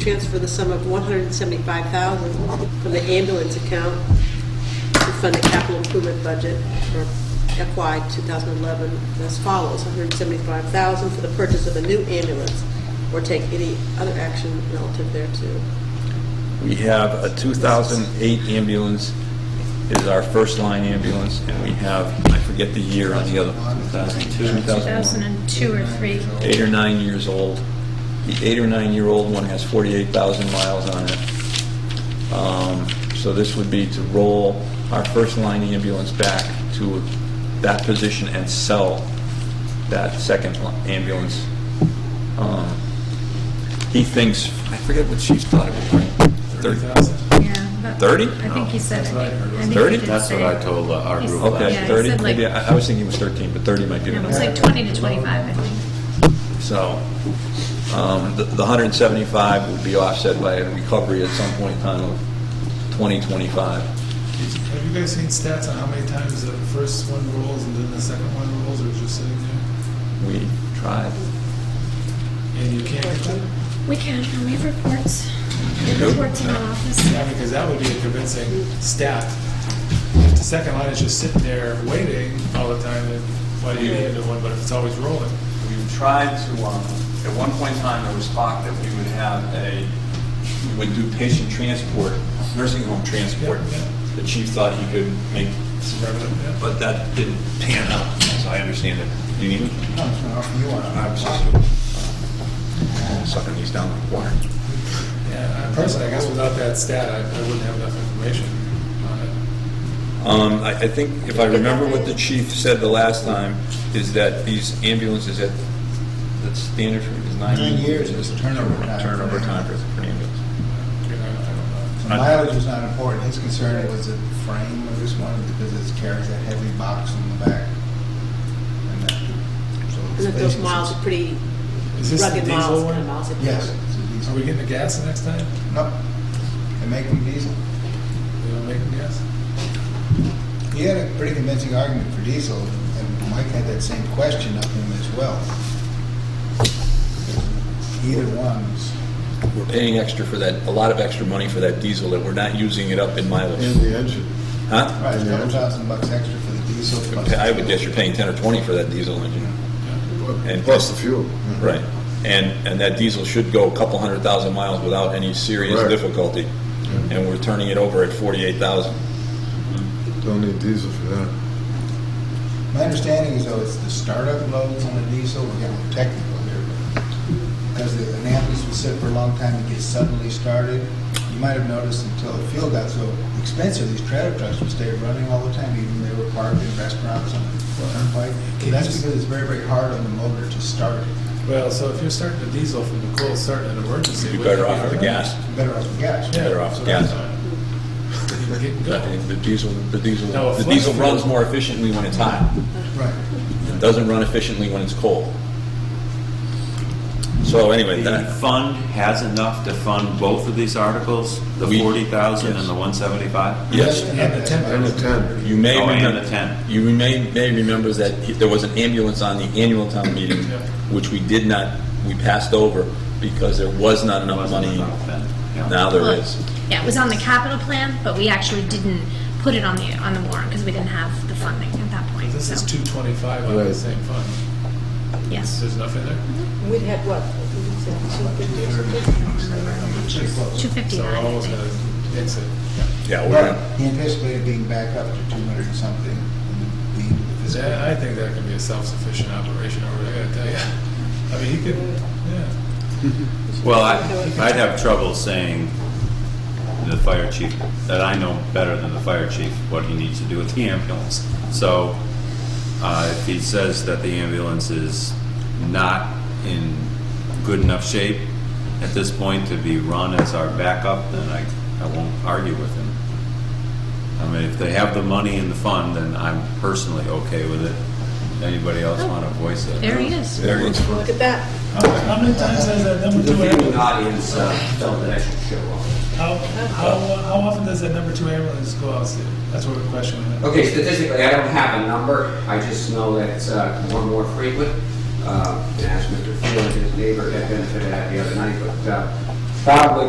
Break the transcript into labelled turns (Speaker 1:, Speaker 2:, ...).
Speaker 1: transfer the sum of 175000 from the ambulance account to fund the capital improvement budget for FY 2011 as follows, 175000 for the purchase of a new ambulance, or take any other action relative thereto.
Speaker 2: We have a 2008 ambulance is our first line ambulance, and we have, I forget the year on the other. 2002. 2001.
Speaker 3: 2002 or 3.
Speaker 2: Eight or nine years old. The eight or nine-year-old one has 48,000 miles on it. Um, So this would be to roll our first line ambulance back to that position and sell that second li- ambulance. Um, He thinks, I forget what she thought it was, Thirty thousand.
Speaker 3: Yeah, but
Speaker 2: 30?
Speaker 3: I think he said, I think- I think. he
Speaker 2: 30?
Speaker 3: did
Speaker 4: That's what
Speaker 3: say-
Speaker 4: I told, uh, our
Speaker 3: he s-
Speaker 4: group last
Speaker 2: Okay,
Speaker 3: yeah, he
Speaker 4: year.
Speaker 2: 30,
Speaker 3: said like-
Speaker 2: maybe, I I was thinking it was 13, but 30 might be.
Speaker 3: No,
Speaker 2: the
Speaker 3: it was like 20 to 25, I think.
Speaker 2: So, um, the the 175 would be offset by a recovery at some point in time of 2025.
Speaker 5: Have you guys seen stats on how many times the first one rolls and then the second one rolls, or it's just sitting there?
Speaker 2: We tried.
Speaker 5: And you can't get them?
Speaker 3: We can, and we have reports. We
Speaker 2: do?
Speaker 3: have reports in our office.
Speaker 5: Yeah, because that would be a convincing stat. If the second line is just sitting there waiting all the time, then why do you need a new one, but if it's always rolling?
Speaker 2: We tried to, um, at one point in time, there was talk that we would have a, we would do patient transport, nursing home transport.
Speaker 5: Yeah, yeah.
Speaker 2: The chief thought he could make some revenue,
Speaker 5: Yeah.
Speaker 2: but that didn't pan out, so I understand it. You need me? I'm Sucking these down like water.
Speaker 5: Yeah, I- personally, I guess without that stat, I I wouldn't have enough information on it.
Speaker 2: Um, I, I think, if I remember what the chief said the last time, is that these ambulances at, the standard for, is nine?
Speaker 6: Nine years is turnover time.
Speaker 2: Turnover time for for an ambulance.
Speaker 5: You know, I don't know.
Speaker 6: The mileage was not important. His concern was the frame of this one because it carries a heavy box on the back. And that- so it's
Speaker 1: And if those
Speaker 6: basically-
Speaker 1: miles are pretty
Speaker 5: Is this the
Speaker 1: rugged miles,
Speaker 5: diesel
Speaker 1: kind of
Speaker 5: one?
Speaker 1: miles. that-
Speaker 6: Yes. it's a diesel.
Speaker 5: Are we getting the gas the next time?
Speaker 6: Nope. They make them diesel.
Speaker 5: They don't make them gas?
Speaker 6: He had a pretty convincing argument for diesel, and Mike had that same question of him as well. Either one's.
Speaker 2: We're paying extra for that, a lot of extra money for that diesel that we're not using it up in mileage.
Speaker 7: the engine.
Speaker 2: Huh?
Speaker 6: Right, a couple thousand bucks extra for the diesel. plus-
Speaker 2: I would guess you're paying ten or twenty for that diesel engine. And-
Speaker 7: Plus the fuel.
Speaker 2: Right. And, and that diesel should go a couple hundred thousand miles without any serious
Speaker 7: Right.
Speaker 2: difficulty. And we're turning it over at forty-eight thousand.
Speaker 7: Don't need diesel for that.
Speaker 6: My understanding is though, it's the startup loads on the diesel, we're getting technical here, but because the ambulance will sit for a long time, it gets suddenly started. You might have noticed until the fuel got so expensive, these trailer trucks would stay running all the time, even they were parked in restaurants on the turnpike. That's because it's very, very hard on the motor to start it.
Speaker 5: Well, so if you're starting a diesel from the coal, starting an emergency.
Speaker 2: You'd be
Speaker 5: wouldn't
Speaker 2: better
Speaker 5: it
Speaker 2: off with the
Speaker 5: harder?
Speaker 2: gas.
Speaker 6: You're Better off with gas.
Speaker 5: Yeah,
Speaker 2: Better off
Speaker 5: so
Speaker 2: with gas.
Speaker 5: that's fine. You're getting
Speaker 2: I
Speaker 5: going.
Speaker 2: think The diesel, the diesel,
Speaker 5: No,
Speaker 2: the
Speaker 5: flex
Speaker 2: diesel
Speaker 5: fuel.
Speaker 2: runs more efficiently when it's hot.
Speaker 6: Right.
Speaker 2: It doesn't run efficiently when it's cold. So anyway,
Speaker 4: The
Speaker 2: that,
Speaker 4: fund has enough to fund both of these articles, the
Speaker 2: We-
Speaker 4: 40,000
Speaker 2: yes.
Speaker 4: and the 175?
Speaker 2: Yes.
Speaker 5: And the temp-
Speaker 7: And the temp.
Speaker 2: you may
Speaker 4: Oh, and
Speaker 2: remember,
Speaker 4: the tent.
Speaker 2: you may, may remember that he- there was an ambulance on the annual town meeting,
Speaker 5: Yeah.
Speaker 2: which we did not, we passed over because there was not enough
Speaker 4: Wasn't
Speaker 2: money.
Speaker 4: enough then, yeah.
Speaker 2: Now there is.
Speaker 3: Yeah, it was on the capital plan, but we actually didn't put it on the, on the warrant because we didn't have the funding at that point.
Speaker 5: This is
Speaker 3: so-
Speaker 5: 225 out of the
Speaker 7: Right.
Speaker 5: same fund.
Speaker 3: Yes,
Speaker 5: There's enough in there?
Speaker 1: We'd had what, two fifty or something?
Speaker 3: 259,
Speaker 5: So we're
Speaker 3: I
Speaker 5: almost
Speaker 3: think.
Speaker 5: at an exit.
Speaker 2: Yeah, we're
Speaker 6: But
Speaker 2: gonna-
Speaker 6: he anticipated being back up to two hundred and something in the- the
Speaker 5: Is
Speaker 6: fiscal
Speaker 5: that- I think that can be a self-sufficient operation over there, I gotta tell you. I mean, he could, yeah.
Speaker 4: Well, I- I'd have trouble saying to the fire chief, that I know better than the fire chief what he needs to do with the ambulance. So uh, if he says that the ambulance is not in good enough shape at this point to be run as our backup, then I, I won't argue with him. I mean, if they have the money in the fund, then I'm personally okay with it. Anybody else want to voice it?
Speaker 3: Oh, there he is.
Speaker 2: there it is.
Speaker 1: Look at that.
Speaker 5: How many times has that number two ambulance,
Speaker 8: audience uh, felt that I should show up.
Speaker 5: how, how, uh, how often does that number two ambulance go out? Steve? That's what we're questioning.
Speaker 8: Okay, statistically, I don't have a number, I just know that it's uh, more and more frequent. Uh, And as Mr. Field and his neighbor had been to that the other night, but uh, probably